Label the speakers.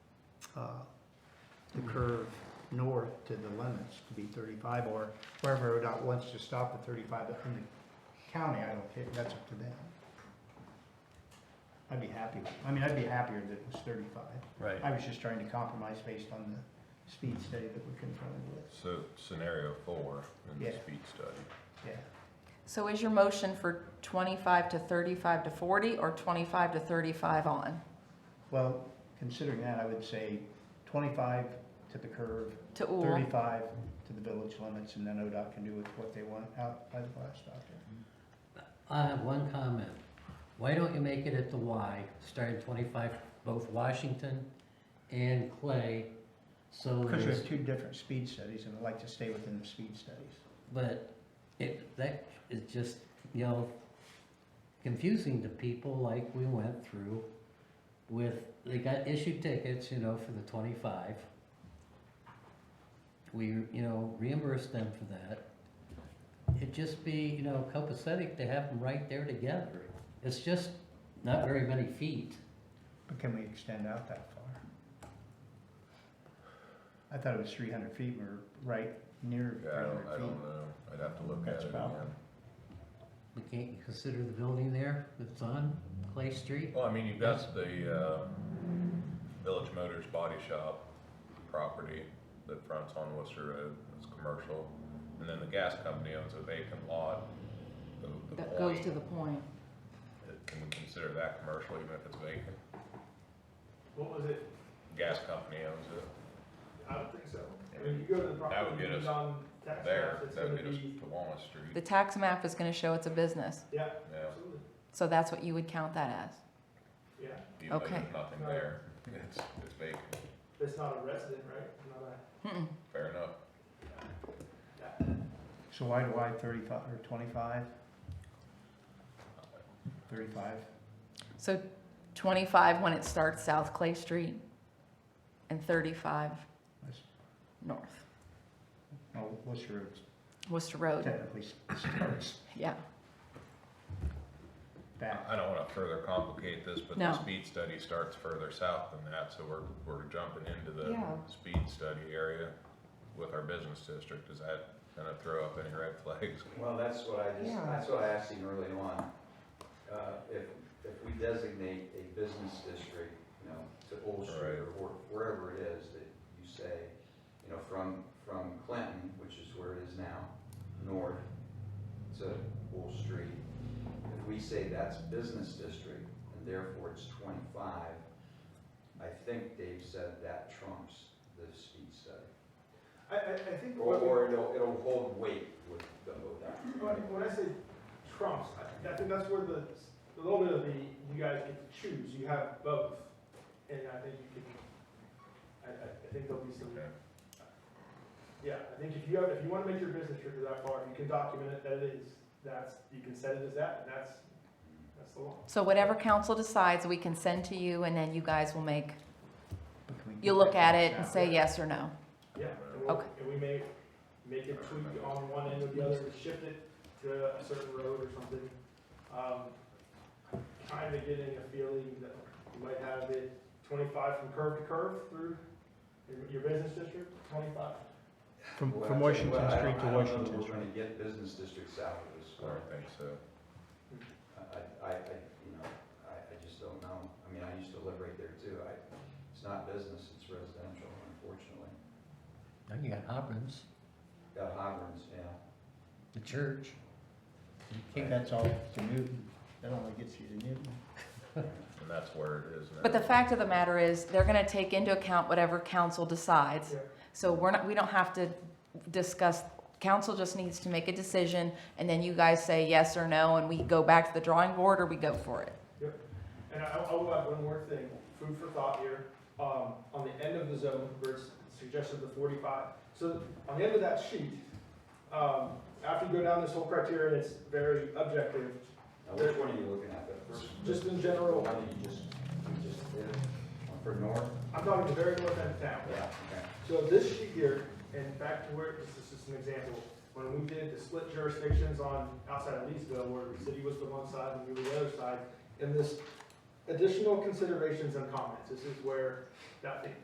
Speaker 1: uh, the curve north to the limits to be thirty-five, or wherever ODOT wants to stop at thirty-five in the county, I don't care, that's up to them. I'd be happy, I mean, I'd be happier that it was thirty-five.
Speaker 2: Right.
Speaker 1: I was just trying to compromise based on the speed study that we're confronted with,
Speaker 3: So scenario four in the
Speaker 1: Yeah.
Speaker 3: speed study.
Speaker 1: yeah.
Speaker 4: So is your motion for twenty-five to thirty-five to forty, or twenty-five to thirty-five on,
Speaker 1: Well, considering that, I would say twenty-five to the curve,
Speaker 4: to Ool?
Speaker 1: thirty-five to the village limits, and then ODOT can do with what they want out by the blast doctor.
Speaker 5: I have one comment. Why don't you make it at the Y, starting twenty-five, both Washington and Clay? So
Speaker 1: Because you
Speaker 5: there's,
Speaker 1: have two different speed studies, and I'd like to stay within the speed studies.
Speaker 5: but it, that is just, you know, confusing to people like we went through with, they got issued tickets, you know, for the twenty-five. We, you know, reimbursed them for that. It'd just be, you know, copacetic to have them right there together. It's just not very many feet.
Speaker 1: But can we extend out that far? I thought it was three hundred feet, we're right near three
Speaker 3: Yeah, I don't, I
Speaker 1: hundred feet.
Speaker 3: don't know. I'd have to look at
Speaker 1: That's
Speaker 3: it
Speaker 1: about-
Speaker 3: again.
Speaker 5: We can't consider the building there that's on Clay Street?
Speaker 3: Well, I mean, you've got the, uh, Village Motors Body Shop property that fronts on Worcester Road. It's commercial. And then the gas company owns a vacant lot. The- the
Speaker 4: That goes
Speaker 3: point,
Speaker 4: to the point.
Speaker 3: Can we consider that commercial even if it's vacant?
Speaker 6: What was it?
Speaker 3: Gas company owns it.
Speaker 6: I don't think so. I mean, you go to the
Speaker 3: That would
Speaker 6: property
Speaker 3: get us
Speaker 6: on tax
Speaker 3: There,
Speaker 6: maps, it's
Speaker 3: that
Speaker 6: gonna
Speaker 3: would get us
Speaker 6: be,
Speaker 3: to Walnut
Speaker 4: The
Speaker 3: Street.
Speaker 4: tax map is gonna show it's a business,
Speaker 6: yeah,
Speaker 3: Yeah,
Speaker 6: absolutely,
Speaker 4: so that's what you would count that as.
Speaker 6: yeah.
Speaker 3: even though
Speaker 4: Okay.
Speaker 3: there's nothing there. It's, it's vacant.
Speaker 6: That's not a resident, right? Not a,
Speaker 4: Mm-mm.
Speaker 3: Fair enough.
Speaker 1: So why do I thirty-five, or twenty-five? Thirty-five,
Speaker 4: So twenty-five when it starts South Clay Street, and thirty-five
Speaker 1: That's-
Speaker 4: north,
Speaker 1: oh, what's your,
Speaker 4: Worcester Road,
Speaker 1: technically starts
Speaker 4: yeah.
Speaker 1: back.
Speaker 3: I don't wanna further complicate this, but
Speaker 4: No.
Speaker 3: the speed study starts further south than that, so we're, we're jumping into the
Speaker 4: Yeah.
Speaker 3: speed study area with our business district, is that gonna throw up any red flags?
Speaker 7: Well, that's what I just,
Speaker 4: Yeah.
Speaker 7: that's what I asked him early on. Uh, If, if we designate a business district, you know, to Old Street or where- wherever it is that you say, you know, from, from Clinton, which is where it is now, north to Old Street, if we say that's business district and therefore it's twenty-five, I think Dave said that trumps the speed study.
Speaker 6: I, I, I think
Speaker 7: Or,
Speaker 6: what, we-
Speaker 7: or it'll, it'll hold weight with the ODOT.
Speaker 6: when, when I say trumps, I, I think that's where the, a little bit of the, you guys get to choose, you have both. And I think you can, I, I, I think there'll be some,
Speaker 3: Okay.
Speaker 6: yeah, I think if you have, if you wanna make your business trip to that far, you can document it, that it is, that's, you can set it as that, and that's, that's the law.
Speaker 4: So whatever council decides, we can send to you, and then you guys will make,
Speaker 1: But can we
Speaker 4: you'll
Speaker 1: keep
Speaker 4: look
Speaker 1: that
Speaker 4: at it and
Speaker 1: down?
Speaker 4: say yes or no.
Speaker 6: Yeah, and we'll,
Speaker 4: Okay.
Speaker 6: and we may make it tweak on one end or the other, shift it to a certain road or something. Um, Kind of getting a feeling that you might have it twenty-five from curve to curve through your- your business district, twenty-five.
Speaker 1: From,
Speaker 7: Well,
Speaker 1: from
Speaker 7: I tell you
Speaker 1: Washington
Speaker 7: what, I
Speaker 1: Street
Speaker 7: don't-
Speaker 1: to
Speaker 7: I don't know that
Speaker 1: Washington
Speaker 7: We're
Speaker 1: Street.
Speaker 7: gonna get business districts out of this,
Speaker 3: I don't think so.
Speaker 7: I, I, I- you know, I, I just don't know. I mean, I used to live right there too. I, it's not business, it's residential, unfortunately.
Speaker 5: Now you got Hopkins,
Speaker 7: Got hydrants, yeah.
Speaker 5: the church. You
Speaker 1: Okay,
Speaker 5: can't-
Speaker 1: That's all to Newton, that only gets you to Newton.
Speaker 3: And that's where it is now.
Speaker 4: But the fact of the matter is, they're gonna take into account whatever council decides.
Speaker 6: Yeah.
Speaker 4: So we're not, we don't have to discuss, council just needs to make a decision, and then you guys say yes or no, and we go back to the drawing board, or we go for it.
Speaker 6: And I, I will add one more thing, food for thought here, um, on the end of the zone where it's suggested the forty-five. So on the end of that sheet, um, after you go down this whole criteria, it's very objective,
Speaker 7: Now, which one are you looking at? The first?
Speaker 6: just in
Speaker 7: The
Speaker 6: general,
Speaker 7: one that you just, you just did? For north?
Speaker 6: I'm talking the very north end of town.
Speaker 7: Yeah, okay.
Speaker 6: So this sheet here, and back to where, this is just an example, when we did the split jurisdictions on, outside of Leesville, where the city was the one side and we were the other side, and this additional considerations and comments, this is where that,